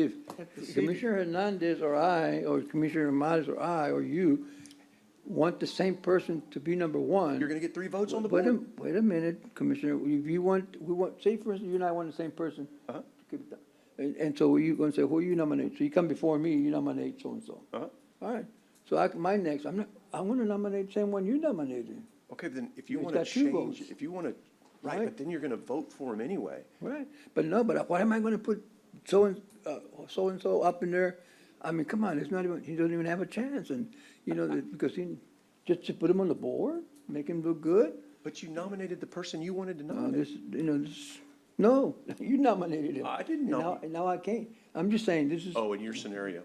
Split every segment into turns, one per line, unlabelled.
If Commissioner Hernandez or I, or Commissioner Ramadas or I, or you want the same person to be number one.
You're gonna get three votes on the
Wait a-
board.
Wait a minute, Commissioner, if you want, we want, say for instance, you and I want the same person.
Uh-huh.
Keep it down. And, and so you're gonna say, who you nominate? So you come before me, you nominate so-and-so.
Uh-huh.
All right, so I, my next, I'm not, I'm gonna nominate the same one you nominated.
Okay, but then if you
He's
wanna
got two
change,
votes.
if you wanna, right,
Right.
but then you're gonna vote for him anyway.
Right, but no, but why am I gonna put so and, uh, so and so up in there? I mean, come on, it's not even, he doesn't even have a chance and, you know, that- because he, just to put him on the board, make him look good?
But you nominated the person you wanted to
No, this,
nominate.
you know, this, no, you nominated him.
I didn't
And now-
nominate-
And now I can't. I'm just saying, this is,
Oh, in your scenario.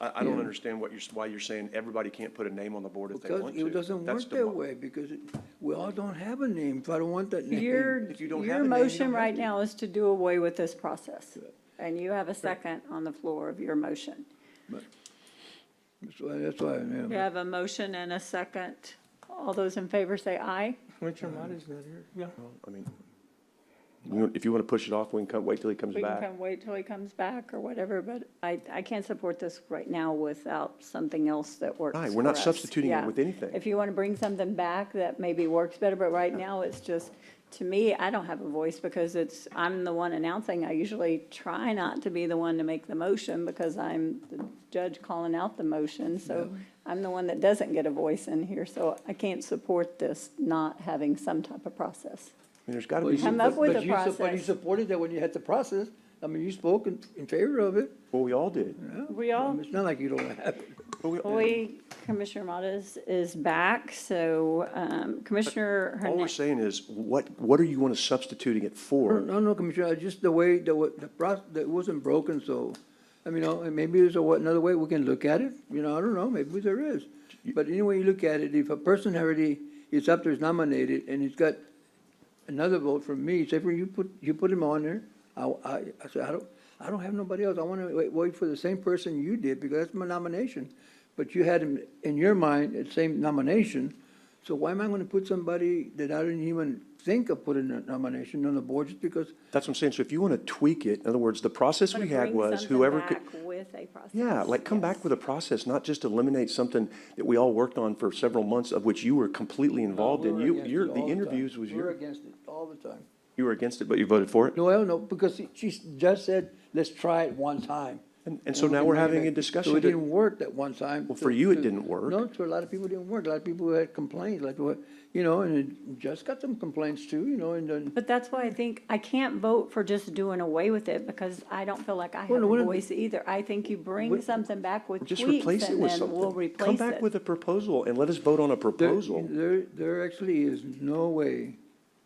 I, I don't
Yeah.
understand what you're, s- why you're saying everybody can't put a name on the board if they
because
want to.
it doesn't
That's
work
the
that
mo-
way, because it- we all don't have a name, so I don't want that name.
Your,
If you don't have
your
a name, you don't
motion
have
right
to.
now is to do away with this process. And you have a second on the floor of your motion.
That's why, that's why,
You
yeah.
have a motion and a second. All those in favor say aye.
Commissioner Marty's not here. Yeah.
I mean, you want- if you wanna push it off, we can come, wait till he comes
We can
back.
come wait till he comes back or whatever, but I, I can't support this right now without something else that works
Right, we're not
for us.
substituting it
Yeah.
with anything.
If you want to bring something back that maybe works better, but right now it's just, to me, I don't have a voice because it's, I'm the one announcing. I usually try not to be the one to make the motion because I'm the judge calling out the motion, so I'm the one that doesn't get a voice in here, so I can't support this not having some type of process.
I mean, there's gotta
But
be,
you-
some-
Come up
but-
with
but
a
you sup- But you
process.
supported that when you had the process. I mean, you spoke in, in favor of it.
well, we all did.
yeah.
We all-
I mean, It's not like you don't have it.
But we-
Boy, Commissioner Modas is back, so um, Commissioner
All we're
Hernandez.
saying is, what, what are you wanna substituting it for?
No, no, Commissioner, just the way, the, wa- the process, that it wasn't broken, so, I mean, you know, and maybe there's a, wa- another way we can look at it, you know, I don't know, maybe there is. But anyway you look at it, if a person already is up there, is nominated, and he's got another vote from me, say for you put, you put him on there, I, I, I said, I don't, I don't have nobody else, I wanna wait, wait for the same person you did, because that's my nomination. But you had him, in your mind, the same nomination, so why am I gonna put somebody that I didn't even think of putting a nomination on the board just because
That's what I'm saying. So if you want to tweak it, in other words, the process we had was whoever could,
With a process.
yeah, like come back with a process, not just eliminate something that we all worked on for several months of which you were completely involved in.
We're
You,
against
your,
it
the
all time.
interviews was
We're
your,
against it all the time.
you were against it, but you voted for it.
No, I don't know, because she- she just said, let's try it one time.
And, and so
we
now
can
we're
bring it
having a
back.
discussion.
So it
that-
didn't work that one time.
Well, for
to-
you, it
to-
didn't work.
No, to a lot of people, it didn't work. A lot of people had complaints, like, what, you know, and it just got some complaints too, you know, and then.
But that's why I think I can't vote for just doing away with it because I don't feel like I
Well,
have a
what-
voice either. I think you bring something back with
Just
tweaks
replace it
and
with
then we'll
something. Come
replace
back
it.
with a proposal and let us vote on a
there-
proposal.
There, there actually is no way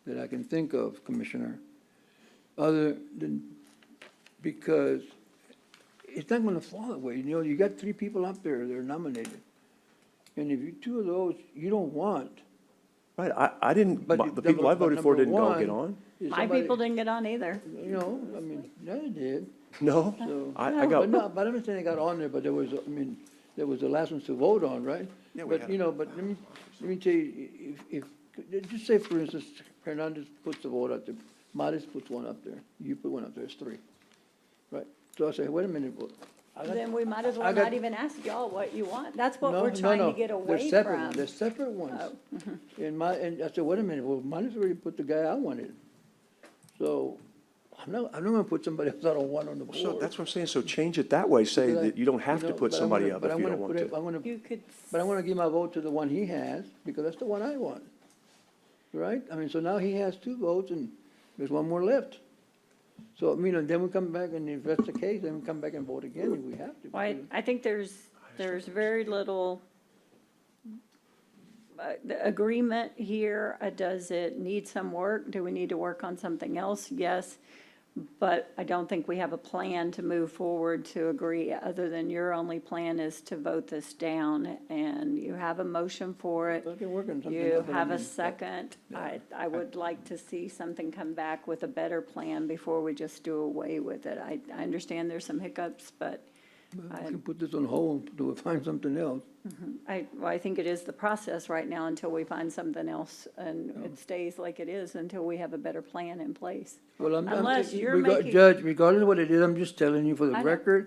that I can think of, Commissioner, other than, because it's not gonna fall that way. You know, you got three people up there, they're nominated. And if you, two of those you don't want,
Right, I, I didn't,
but.
my- the people I voted for didn't all get on.
My people didn't get on either.
You know, I mean, yeah, they did,
No,
so.
I, I
But no,
got,
but I'm saying they got on there, but there was, I mean, there was the last ones to vote on, right?
Yeah, we
But,
had-
you know, but let me, let me tell you, if, if, just say for instance, Hernandez puts the vote out there, Maris puts one up there, you put one up there, it's three, right? So I say, wait a minute, well, I got-
Then we might as
I
well
got-
not even ask y'all what you want. That's what
no,
we're
no,
trying
no,
to get away
They're separate,
from. Oh.
they're separate ones. And my, and I said, wait a minute, well, Maris already put the guy I wanted, so I'm not, I'm not gonna put somebody else I don't want on the board.
so that's what I'm saying. So change it that way. Say
Because I-
that you don't have to
know,
put
but I'm
somebody
gonna-
up
but
if
I'm
you
gonna
don't
put
want to.
it- I'm gonna,
You could
but I'm gonna give my vote to the one he has, because that's the one I want. Right? I mean, so now he has two votes and there's one more left. So, I mean, and then we come back and if that's the case, then we come back and vote again if we have to.
Well, I, I think there's, there's very little uh, the agreement here. Uh, Does it need some work? Do we need to work on something else? Yes. But I don't think we have a plan to move forward to agree, other than your only plan is to vote this down. And you have a motion for it.
Let's get working something
You
out, but I
have a
mean,
second. I, I would like to see something come back with a better plan before we just do away with it. I, I understand there's some hiccups, but
We can put this on hold, do we find something else?
I, well, I think it is the process right now until we find something else, and it stays like it is until we have a better plan in place.
Well, I'm- I'm-
Unless you're
rega-
making-
Judge, regardless of what it is, I'm just telling you for
I
the
know.
record,